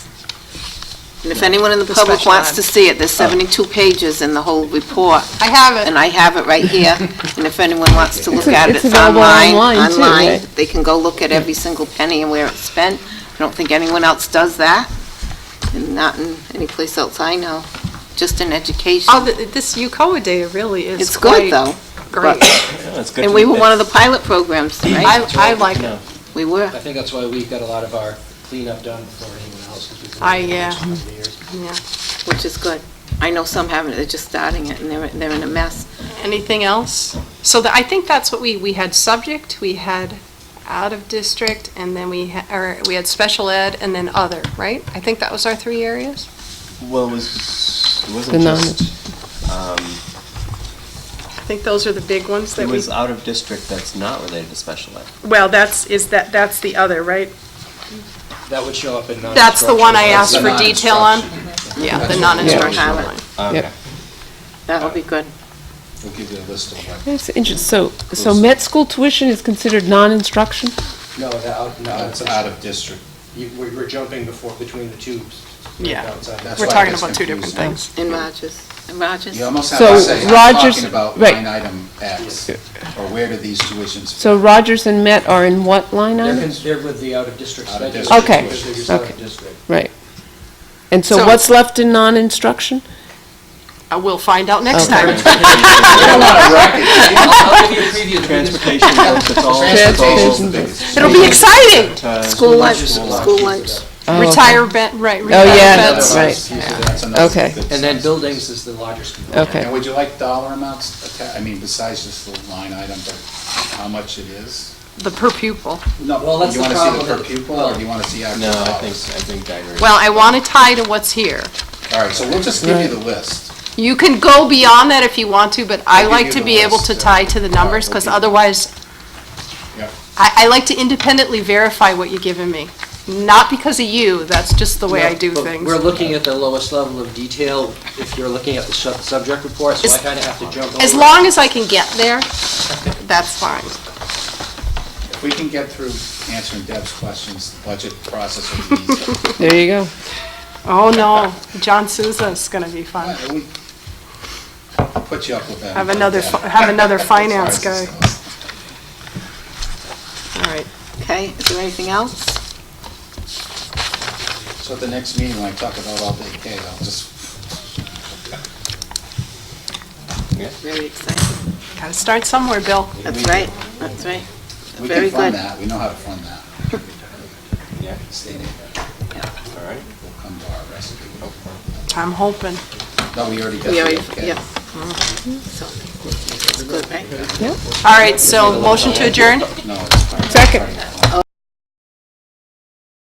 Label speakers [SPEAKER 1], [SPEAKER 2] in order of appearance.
[SPEAKER 1] And if anyone in the
[SPEAKER 2] The
[SPEAKER 1] public
[SPEAKER 2] special
[SPEAKER 1] wants
[SPEAKER 2] ed.
[SPEAKER 1] to see it, there's 72 pages in the whole report,
[SPEAKER 2] I have it.
[SPEAKER 1] and I have it right here, and if anyone wants to look
[SPEAKER 3] It's-
[SPEAKER 1] at it,
[SPEAKER 3] it's
[SPEAKER 1] it's
[SPEAKER 3] available
[SPEAKER 1] online,
[SPEAKER 3] online too,
[SPEAKER 1] online.
[SPEAKER 3] right?
[SPEAKER 1] They can go look at every single penny and where it's spent. I don't think anyone else does that, and not in any place else I know, just in education.
[SPEAKER 2] Oh, th- this UCOA data really is
[SPEAKER 1] It's good,
[SPEAKER 2] quite
[SPEAKER 1] though,
[SPEAKER 2] great.
[SPEAKER 4] Yeah, it's good
[SPEAKER 1] and
[SPEAKER 4] to
[SPEAKER 1] we
[SPEAKER 4] be
[SPEAKER 1] were one of the
[SPEAKER 4] fixed.
[SPEAKER 1] pilot programs, right?
[SPEAKER 2] I, I like it.
[SPEAKER 4] No.
[SPEAKER 1] We were.
[SPEAKER 5] I think that's why we got a lot of our cleanup done before anyone else. 'cause we've been
[SPEAKER 2] I,
[SPEAKER 5] doing it
[SPEAKER 2] yeah.
[SPEAKER 5] for years and years.
[SPEAKER 2] Yeah.
[SPEAKER 1] which is good. I know some haven't, they're just starting it, and they're, they're in a mess.
[SPEAKER 2] Anything else? So that, I think that's what we, we had subject, we had out of district, and then we, ha- or we had special ed, and then other, right? I think that was our three areas?
[SPEAKER 4] Well, it was, it
[SPEAKER 3] The
[SPEAKER 4] wasn't
[SPEAKER 3] non-
[SPEAKER 4] just, um,
[SPEAKER 2] I think those are the big ones
[SPEAKER 4] it
[SPEAKER 2] that we,
[SPEAKER 4] was out of district that's not related to special ed.
[SPEAKER 2] well, that's, is that, that's the other, right?
[SPEAKER 5] That would show up in non
[SPEAKER 2] That's the one I asked for detail on? Yeah, the
[SPEAKER 5] That's-
[SPEAKER 2] non-instructional
[SPEAKER 1] Yeah.
[SPEAKER 2] one.
[SPEAKER 4] Okay.
[SPEAKER 3] Yep.
[SPEAKER 1] That'll be good.
[SPEAKER 5] We'll give you a list of them.
[SPEAKER 3] That's interesting. So, so med school tuition is considered non-instruction?
[SPEAKER 5] No, the out, no,
[SPEAKER 6] That's
[SPEAKER 5] it's
[SPEAKER 6] out
[SPEAKER 5] out of,
[SPEAKER 6] of district.
[SPEAKER 5] you, we were jumping before, between the tubes.
[SPEAKER 2] Yeah.
[SPEAKER 5] Outside.
[SPEAKER 6] That's
[SPEAKER 2] We're
[SPEAKER 6] why it
[SPEAKER 2] talking
[SPEAKER 6] gets
[SPEAKER 2] about two different
[SPEAKER 6] confusing.
[SPEAKER 2] things.
[SPEAKER 1] In Rogers, in Rogers?
[SPEAKER 6] You almost have to
[SPEAKER 3] So
[SPEAKER 6] say, I'm
[SPEAKER 3] Rogers-
[SPEAKER 6] talking about
[SPEAKER 3] right.
[SPEAKER 6] line item X, or where do these tuitions
[SPEAKER 3] So Rogers and Met are in what line
[SPEAKER 5] They're,
[SPEAKER 3] item?
[SPEAKER 5] con- they're with the out of district
[SPEAKER 6] Out of
[SPEAKER 5] studies.
[SPEAKER 6] district.
[SPEAKER 3] Okay,
[SPEAKER 5] because they're just out of
[SPEAKER 3] okay.
[SPEAKER 5] district.
[SPEAKER 3] Right. And so
[SPEAKER 2] So-
[SPEAKER 3] what's left in non-instruction?
[SPEAKER 2] Uh, We'll find out next time.
[SPEAKER 4] I'll give you a preview. Transportation, it's all, it's all.
[SPEAKER 3] Transportation.
[SPEAKER 2] It'll be exciting!
[SPEAKER 4] uh,
[SPEAKER 1] School lunch,
[SPEAKER 4] lunches,
[SPEAKER 1] school lunch.
[SPEAKER 3] Oh,
[SPEAKER 2] Retire ben, right,
[SPEAKER 3] Oh,
[SPEAKER 2] retire
[SPEAKER 3] yeah,
[SPEAKER 2] beds.
[SPEAKER 3] that's right. Okay.
[SPEAKER 5] And then buildings is the largest component.
[SPEAKER 3] Oh, Okay.
[SPEAKER 6] And would you like dollar amounts, atta- I mean, besides just the line item, but how much it is?
[SPEAKER 2] The per pupil.
[SPEAKER 6] Uh, No,
[SPEAKER 5] Well, that's
[SPEAKER 6] you
[SPEAKER 5] the
[SPEAKER 6] want to see
[SPEAKER 5] problem
[SPEAKER 6] the per
[SPEAKER 5] with-
[SPEAKER 6] pupil, or do you want to see actual
[SPEAKER 4] No, I think,
[SPEAKER 6] dollars?
[SPEAKER 4] I think I agree.
[SPEAKER 2] Well, I want to tie to what's here.
[SPEAKER 6] All right, so we'll just give you the list.
[SPEAKER 2] You can go beyond that if you want to, but I
[SPEAKER 6] I'll give
[SPEAKER 2] like
[SPEAKER 6] you
[SPEAKER 2] to
[SPEAKER 6] the
[SPEAKER 2] be able
[SPEAKER 6] list,
[SPEAKER 2] to
[SPEAKER 6] uh,
[SPEAKER 2] tie to the numbers, because
[SPEAKER 6] okay.
[SPEAKER 2] otherwise,
[SPEAKER 6] Yep.
[SPEAKER 2] I, I like to independently verify what you've given me. Not because of you, that's just the way I
[SPEAKER 5] No,
[SPEAKER 2] do
[SPEAKER 5] but
[SPEAKER 2] things.
[SPEAKER 5] We're looking at the lowest level of detail if you're looking at the sub- subject report, so I
[SPEAKER 2] As-
[SPEAKER 5] kind of have to jump over.
[SPEAKER 2] As long as I can get there, that's fine.
[SPEAKER 6] If we can get through answering Deb's questions, the budget process will be easier.
[SPEAKER 3] There you go.
[SPEAKER 2] Oh, no, John Souza's going to be fun.
[SPEAKER 6] Uh, we- I'll put you up with that.
[SPEAKER 2] Have another,
[SPEAKER 6] Deb.
[SPEAKER 2] fi- have another
[SPEAKER 6] As far as
[SPEAKER 2] finance guy.
[SPEAKER 6] this goes.
[SPEAKER 2] All right.
[SPEAKER 1] Okay, is there anything else?
[SPEAKER 6] So at the next meeting, when I talk about all day K, I'll just,
[SPEAKER 1] Very exciting.
[SPEAKER 2] Got to start somewhere, Bill.
[SPEAKER 1] That's right, that's right.
[SPEAKER 6] we
[SPEAKER 1] Very
[SPEAKER 6] can fund
[SPEAKER 1] good.
[SPEAKER 6] that, we know how to fund that.
[SPEAKER 4] Yeah,
[SPEAKER 6] State aid
[SPEAKER 4] all right.
[SPEAKER 6] will come to our rescue.
[SPEAKER 2] I'm hoping.
[SPEAKER 6] No, we already got
[SPEAKER 1] We already,
[SPEAKER 6] the okay.
[SPEAKER 1] yeah. Mm-hmm. So, It's good, right?
[SPEAKER 2] All right, so motion to adjourn?
[SPEAKER 6] No, it's fine.
[SPEAKER 3] Second.